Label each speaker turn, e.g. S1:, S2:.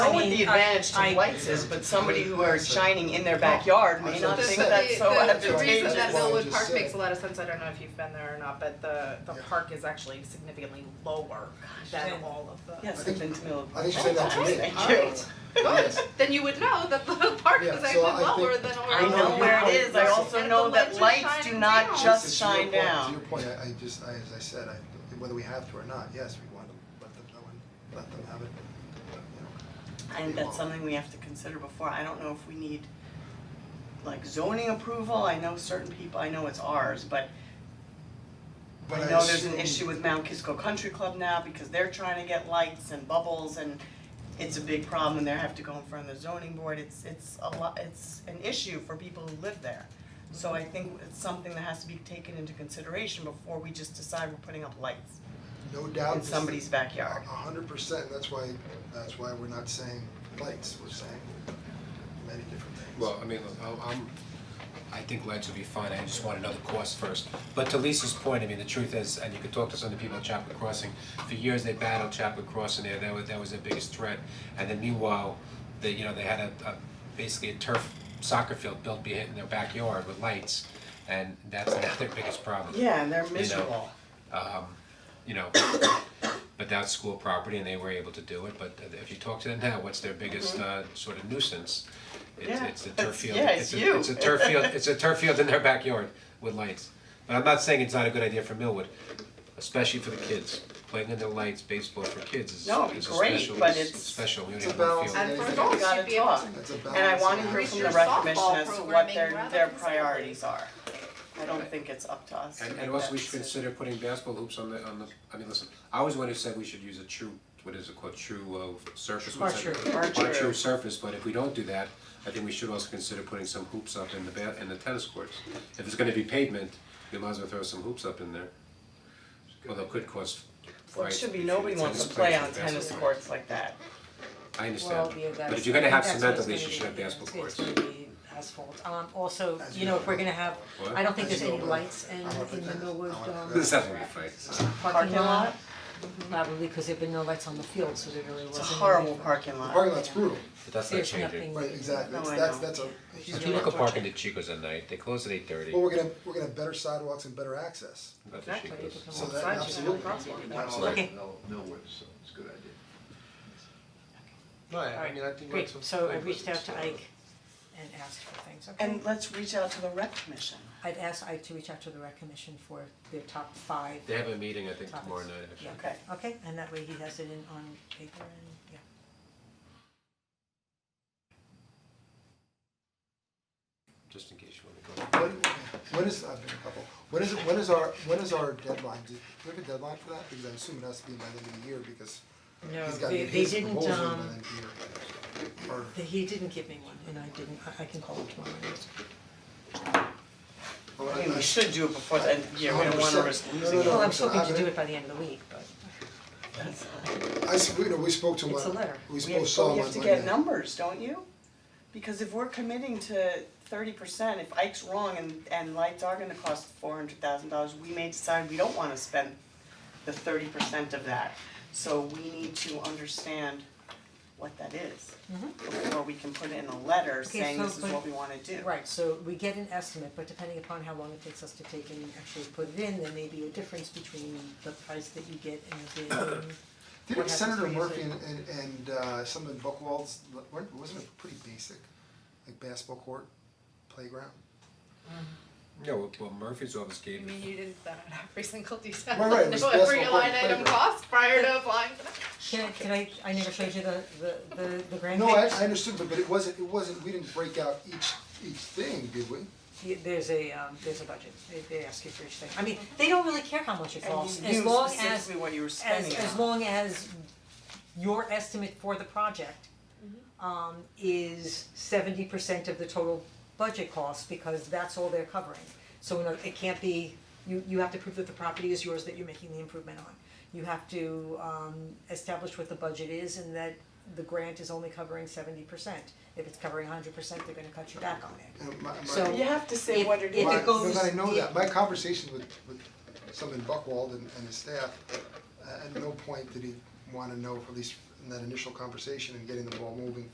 S1: what the advantage to whites is, but somebody who are shining in their backyard may not
S2: The-
S1: think that's so
S2: The, the, the
S1: advantageous.
S2: reason that
S3: Well,
S2: Millwood
S3: just
S2: Park
S3: say.
S2: makes a lot of sense, I don't know if you've been there or not, but the, the
S3: Yeah.
S2: park is actually significantly lower than
S1: yeah.
S2: all of the.
S1: Yes,
S3: I think-
S1: I've been to Mill-
S3: I think she said that to me.
S1: Thank you.
S2: Good, then you would know that the park
S3: Yeah,
S2: is
S3: so
S2: actually
S3: I think-
S2: lower than all
S3: I
S1: I
S2: of
S3: know
S1: know
S2: the-
S1: where it is, I
S3: Yes.
S1: also
S2: And the
S1: know that
S2: lights are
S1: lights do
S2: shining
S1: not
S2: down.
S1: just
S3: It's your
S1: shine
S3: point,
S1: down.
S3: To your point, I I just, I, as I said, I, whether we have to or not, yes, we want to let them know and let them have it, you know.
S1: And that's something we have to consider before, I don't know if we need like zoning approval, I know certain people, I know it's ours, but I
S3: But I
S1: know there's an
S3: assume-
S1: issue with Mount Kisco Country Club now because they're trying to get lights and bubbles and it's a big problem and they have to go in front of the zoning board, it's it's a lot, it's an issue for people who live there. So I think it's something that has to be taken into consideration before we just decide we're putting up lights
S3: No doubt.
S1: in
S3: this-
S1: somebody's backyard.
S3: A hundred percent, that's why, that's why we're not saying lights, we're saying many different things.
S4: Well, I mean, look, I'm- I'm, I think lights would be fine, I just want another course first. But to Lisa's point, I mean, the truth is, and you could talk to some of the people at Chapel Crossing, for years they battled Chapel Crossing there, that was, that was their biggest threat. And then meanwhile, they, you know, they had a, a, basically a turf soccer field built behind in their backyard with lights, and that's now their biggest problem.
S1: Yeah, and they're
S4: know,
S1: miserable.
S4: You know, but that's school property and they were able to do it, but if you talk to them now, what's their biggest, uh, sort of nuisance? It's,
S1: Mm-hmm. Yeah.
S4: it's the turf field,
S1: Yeah,
S4: it's
S1: it's
S4: a,
S1: you.
S4: it's a turf field, it's a turf field in their backyard with lights. But I'm not saying it's not a good idea for Millwood, especially for the kids, playing under lights, baseball for kids is,
S1: No, it'd be
S4: is a
S1: great,
S4: special,
S1: but
S4: it's
S1: it's-
S4: special, we don't
S3: It's a
S4: even feel.
S3: balance.
S2: And for
S3: We
S2: adults,
S1: gotta
S2: you'd Oh, be able
S1: talk.
S2: to
S3: That's a balance.
S1: And I wanna hear
S2: Increase
S1: from the
S2: your
S1: rec commission
S2: softball
S1: as to what
S2: programming
S1: their,
S2: rather
S1: their
S2: than
S1: priorities are. I don't think it's up to us to
S4: And
S1: make
S4: and also
S1: that
S4: we should
S1: decision.
S4: consider putting basketball hoops on the on the, I mean, listen, I was the one who said we should use a true, what is it called, true uh surface, what's that?
S1: Or
S4: Or a
S1: true.
S4: true surface, but if we don't do that, I think we should also consider putting some hoops up in the ba- in the tennis courts. If it's gonna be pavement, we might as well throw some hoops up in there. Although it could cost
S1: Well, it
S4: price
S1: should be,
S4: between
S1: nobody
S4: the
S1: wants to
S4: tennis
S1: play
S4: players
S1: on
S4: and
S1: tennis
S4: basketball.
S1: courts like that.
S4: I
S5: Well,
S4: understand,
S5: yeah,
S4: but
S5: that's-
S4: if you're gonna have
S5: that's
S4: cement,
S5: what it's
S4: at least you
S5: gonna
S4: should have
S5: be.
S4: basketball courts.
S5: It's gonna be asphalt, um, also,
S3: As
S5: you know,
S3: you-
S5: if we're gonna have,
S4: What?
S5: I don't think
S3: As
S5: there's
S3: you
S5: any
S3: know,
S5: lights in,
S3: I want the
S5: in the
S3: tennis-
S5: Millwood,
S3: I want
S5: um,
S3: the
S4: This has to be fight.
S5: parking
S1: Parking lot?
S5: lot, probably, cause they've been no lights on the field, so there really
S1: It's a
S5: wasn't. any
S1: horrible
S5: for-
S1: parking
S3: The
S1: lot.
S3: parking lot's brutal,
S4: But that's not
S5: There's
S4: changing.
S5: nothing.
S3: right, exactly,
S1: No,
S3: It's-
S1: I
S3: that's,
S1: know.
S3: that's a.
S4: If you look at parking at Chico's at night, they close at eight thirty,
S3: Well, we're gonna, we're gonna have better sidewalks and better access,
S4: that's at
S1: Exactly.
S4: Chico's.
S3: so
S1: Well,
S3: that,
S1: sides, you
S3: absolutely,
S1: know, crosswalk.
S3: absolutely.
S5: Okay.
S6: No, so it's a good idea.
S4: No, I I
S5: Alright,
S4: mean, I think
S5: Great,
S4: that's.
S5: so I
S4: fine, but
S5: reached out to
S4: still-
S5: Ike and asked for things, okay?
S1: And let's reach out to the rec commission.
S5: I'd asked Ike to reach out to the rec commission for their top five
S4: They have a meeting, I think, tomorrow
S5: Topics.
S4: night, actually.
S5: Yeah.
S1: Okay.
S5: Okay, and that way he has it in on paper and, yeah.
S4: just in case you wanna go.
S3: When, when is, I've been a couple, when is, it- when is our, when is our deadline, do do we have a deadline for that? Because I assume it has to be by the end of the year, because he's
S5: No, they
S3: gotta get
S5: they
S3: his
S5: didn't,
S3: proposal by the
S5: um,
S3: end of the year. Or-
S5: they- he didn't give me one, and I didn't, I I can call him tomorrow, yes.
S3: or
S1: I
S3: I-
S1: mean,
S3: I-
S1: we should do it before the end of the year, we don't wanna risk
S3: 100%.
S1: losing it.
S3: No,
S5: Well, I'm
S3: it's not
S5: hoping to
S3: happening.
S5: do it by the end of the week, but
S3: I, s- we- you know, we spoke to him
S5: It's a
S3: on-
S5: letter.
S3: we
S1: We have,
S3: spoke, saw
S1: but
S3: him
S1: you
S3: on
S1: have to
S3: Monday.
S1: get numbers, don't you? Because if we're committing to thirty percent, if Ike's wrong and and lights are gonna cost four hundred thousand dollars, we may decide we don't wanna spend the thirty percent of that. So we need to understand what that is before we can put it in a letter
S5: Mm-hmm. Okay,
S1: saying
S5: so
S1: this is
S5: but-
S1: what we wanna do.
S5: Right, so we get an estimate, but depending upon how long it takes us to take and actually put it in, there may be a difference between the price that you get and the bid and
S3: Didn't
S5: what happens
S3: Senator
S5: when you
S3: Murphy
S5: say-
S3: and and and uh someone Buckwald's, weren't, wasn't it pretty basic, like basketball court, playground?
S4: No, well- well, Murphy's office
S2: I
S4: gave,
S2: mean, you didn't bet on every single detail,
S3: Right, right, it
S2: know
S3: was
S2: every
S3: basketball
S2: line
S3: court
S2: item
S3: playground.
S2: cost prior to applying for that.
S5: Can I, can I, I never showed you the, the, the, the grand
S3: No, I
S5: picture?
S3: I understood, but but it wasn't, it wasn't, we didn't break out each each thing, did we?
S5: Yeah, There's a, um, there's a budget, they, they ask you for each thing, I mean, they don't really care how much it
S1: And
S5: costs,
S1: you
S5: as
S1: knew
S5: long as,
S1: specifically what you were spending it
S5: as, as
S1: on.
S5: long as your estimate for the project um, is seventy percent of the total budget cost, because that's all they're covering. So, you know, it can't be, you, you have to prove that the property is yours that you're making the improvement on. You have to, um, establish what the budget is and that the grant is only covering seventy percent. If it's covering hundred percent, they're gonna cut you back on it.
S3: And my my-
S5: So-
S1: You have to say
S5: If-
S1: what it
S5: if
S1: is.
S3: My-
S5: it goes-
S3: No, but I know
S5: it-
S3: that, my conversations with with someone Buckwald and and his staff, uh, at no point did he wanna know, at least in that initial conversation and getting the ball moving